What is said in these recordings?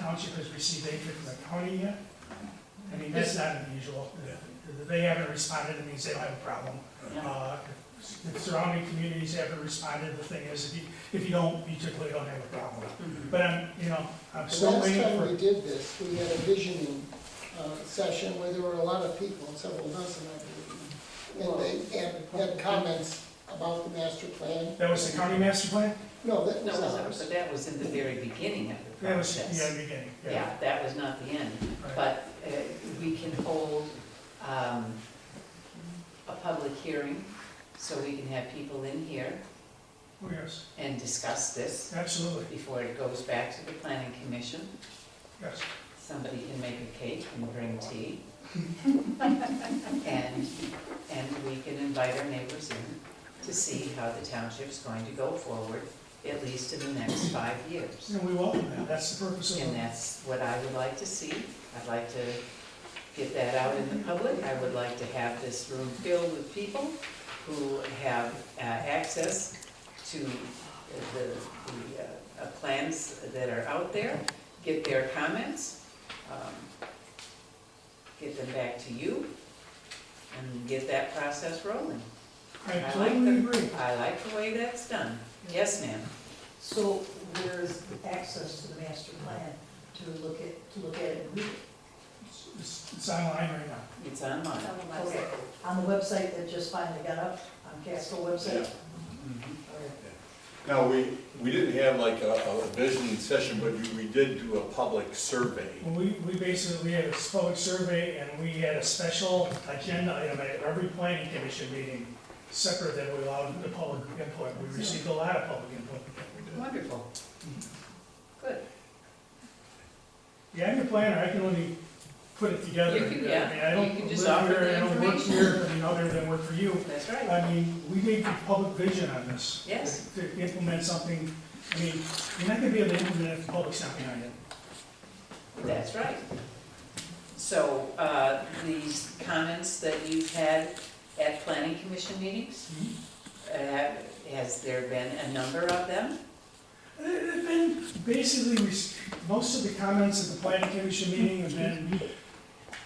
township has received aid from the county yet? I mean, that's not unusual. If They haven't responded, it means they don't have a problem. Uh, If surrounding communities haven't responded, the thing is, if you, if you don't, you typically don't have a problem. But I'm, you know, I'm The still last waiting time we for, did this, we had a visioning uh, session where there were a lot of people, several dozen, I believe. And they had, had comments about the master plan. that was the county master plan? No, that No, was no, ours. but that was in the very beginning of the That was, yeah, process. the beginning, yeah. Yeah, that was not the end, right. but uh, we can hold um, a public hearing, so we can have people in here Oh, yes, and discuss this absolutely, before it goes back to the planning commission. yes. Somebody can make a cake and bring tea. And, and we can invite our neighbors in to see how the township's going to go forward, at least in the next five years. And we welcome that, that's the purpose of And it. that's what I would like to see. I'd like to get that out in the public. I would like to have this room filled with people who have uh, access to the, the uh, uh, plans that are out there, get their comments, um, get them back to you, and get that process rolling. I I like totally the- agree. I like the way that's done. Yes, ma'am. So there's access to the master plan to look at, to look at it and read it. It's- It's it's online right now. It's online. Okay, on the website that just finally got up, on Casco website. Mhm. Okay. Now, we, we didn't have like a, a visioning session, but we did do a public survey. Well, we, we basically had a public survey and we had a special agenda item at every planning commission meeting, separate that we allowed the public input. We received a lot of public input. Wonderful. Good. Yeah, I'm your planner, I can only put it together. You can- yeah, I mean, I you don't can live just offer here, the I don't work information. here, I mean, other than work for you. That's right. I mean, we made the public vision on this. Yes. To implement something, I mean, you're not gonna be able to implement it if the public's not behind it. That's right. So, uh, these comments that you've had at planning commission meetings, uh, has there been a number of them? They've been, basically, res- most of the comments at the planning commission meeting have been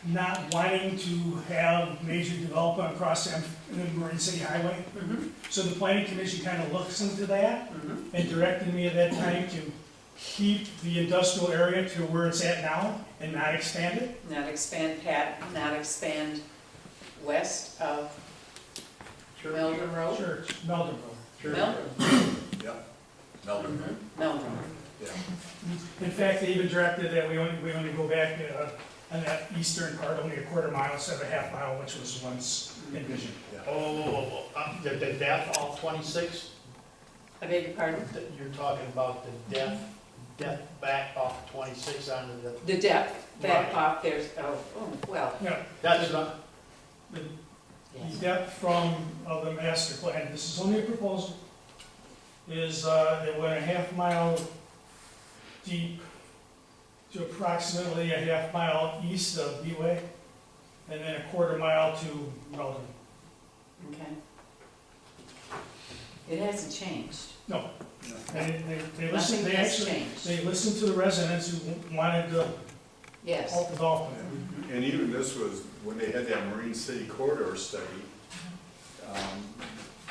not wanting to have major development across the the Marine City Highway. Mhm. So the planning commission kind of looks into that Mhm. and directed me at that time to keep the industrial area to where it's at now and not expand it. Not expand Pat, not expand west of Meldrum Road? Church, Meldon Road. Meldrum, Yeah, Melbourne, right? Meldrum, yeah. In fact, they even directed that we only, we only go back uh, on that eastern part only a quarter mile instead of a half mile, which was once envisioned. Oh, whoa, whoa, whoa, uh, the, the death all twenty-six, I beg your pardon? that you're talking about the death, death back off twenty-six onto the, The depth back Right. off there's, oh, oh, well, Yeah, that's not, yes. The depth from, of the master plan, this is only a proposal, is uh, it went a half mile deep to approximately a half mile east of B-Way, and then a quarter mile to Weldon. Okay. It hasn't changed. And it- they, they listened, Nothing they has actually, changed. they listened to the residents who wanted to Yes. halt development. And even this was, when they had that Marine City corridor study, um,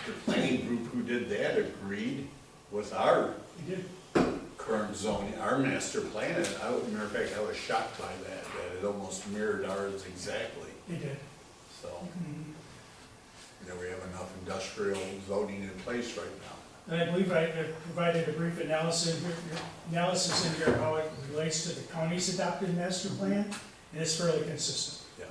the planning group who did that agreed with our They did, current zoning, our master plan. And I, matter of fact, I was shocked by that, that it almost mirrored ours exactly, they did. so. Mm-hmm. You know, we have enough industrial zoning in place right now. And I believe I I provided a brief analysis, analysis in here how it relates to the county's adopted master plan, and it's fairly consistent. Yeah.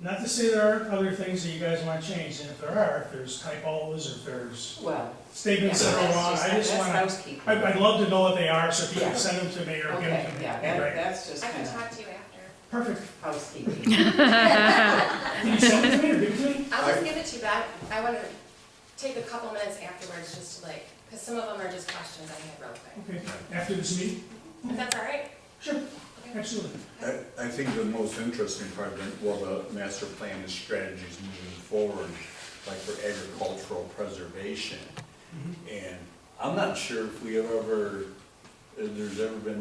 Not to say there aren't other things that you guys want to change, and if there are, if there's typos, or if there's Well, yeah, statements that are that's wrong, just- I just that's want housekeeping. to, I'd love to know what they are, so if you Yeah. can send them to me or give them Okay, to me. that'd yeah, be that, great. that's just I can kind of talk to you after. Perfect. housekeeping. Can you send it to me, or give it to me? I'll just give it to you back. I want to take a couple minutes afterwards just to like, because some of them are just questions I had real quick. Okay, after this meeting? If that's all right? Sure, Okay. absolutely. I, I think the most interesting part, of it, well, the master plan and strategies moving forward, like for agricultural preservation. And I'm not sure if we have ever, if there's ever been